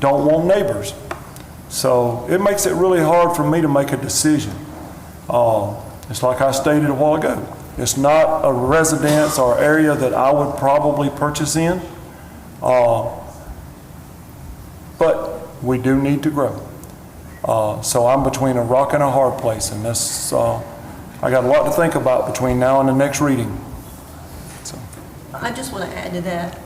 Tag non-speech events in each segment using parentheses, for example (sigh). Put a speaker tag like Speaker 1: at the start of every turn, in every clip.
Speaker 1: don't want neighbors. So it makes it really hard for me to make a decision. Um, It's like I stated a while ago, it's not a residence or area that I would probably purchase in, Uh, but we do need to grow. Uh, So I'm between a rock and a hard place, and that's, uh, I got a lot to think about between now and the next reading. So,
Speaker 2: I just want to add to that,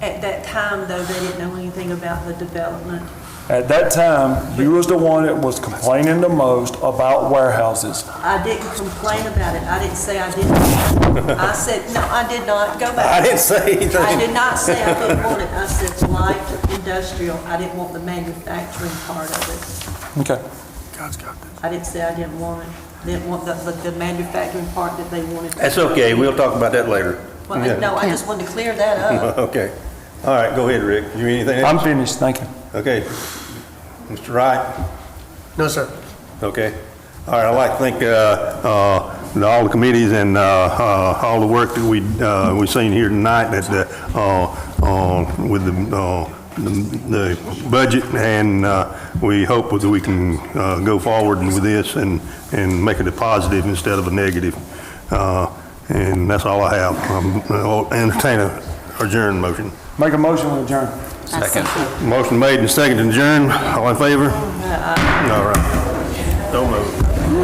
Speaker 2: at that time, though, they didn't know anything about the development.
Speaker 1: At that time, you was the one that was complaining the most about warehouses.
Speaker 2: I didn't complain about it, I didn't say I didn't. I said, no, I did not, go back.
Speaker 3: I didn't say
Speaker 2: I
Speaker 3: anything.
Speaker 2: did not say I didn't want it, I said light industrial, I didn't want the manufacturing part of
Speaker 1: Okay.
Speaker 2: it. I didn't say I didn't want it, didn't want the, but the manufacturing part that they wanted.
Speaker 3: That's okay, we'll talk about that later.
Speaker 2: Well, I- No, I just wanted to clear that up.
Speaker 3: (laughs) Okay. All right, go ahead, Rick. You anything?
Speaker 1: I'm
Speaker 3: else?
Speaker 1: finished, thank you.
Speaker 3: Okay. Mr. Wright?
Speaker 4: No, sir.
Speaker 3: Okay. All right, I'd like to thank uh, uh, the- all the committees and uh, uh, all the work that we, uh, we've seen here tonight that, the, uh, uh, with the, uh, the the budget, and uh, we hope that we can uh, go forward with this and, and make it a positive instead of a negative. Uh, And that's all I have. Um, I'll Entertain a adjourn motion.
Speaker 1: Make a motion to adjourn.
Speaker 3: Motion made and seconded adjourn. All in favor? All right. Don't move.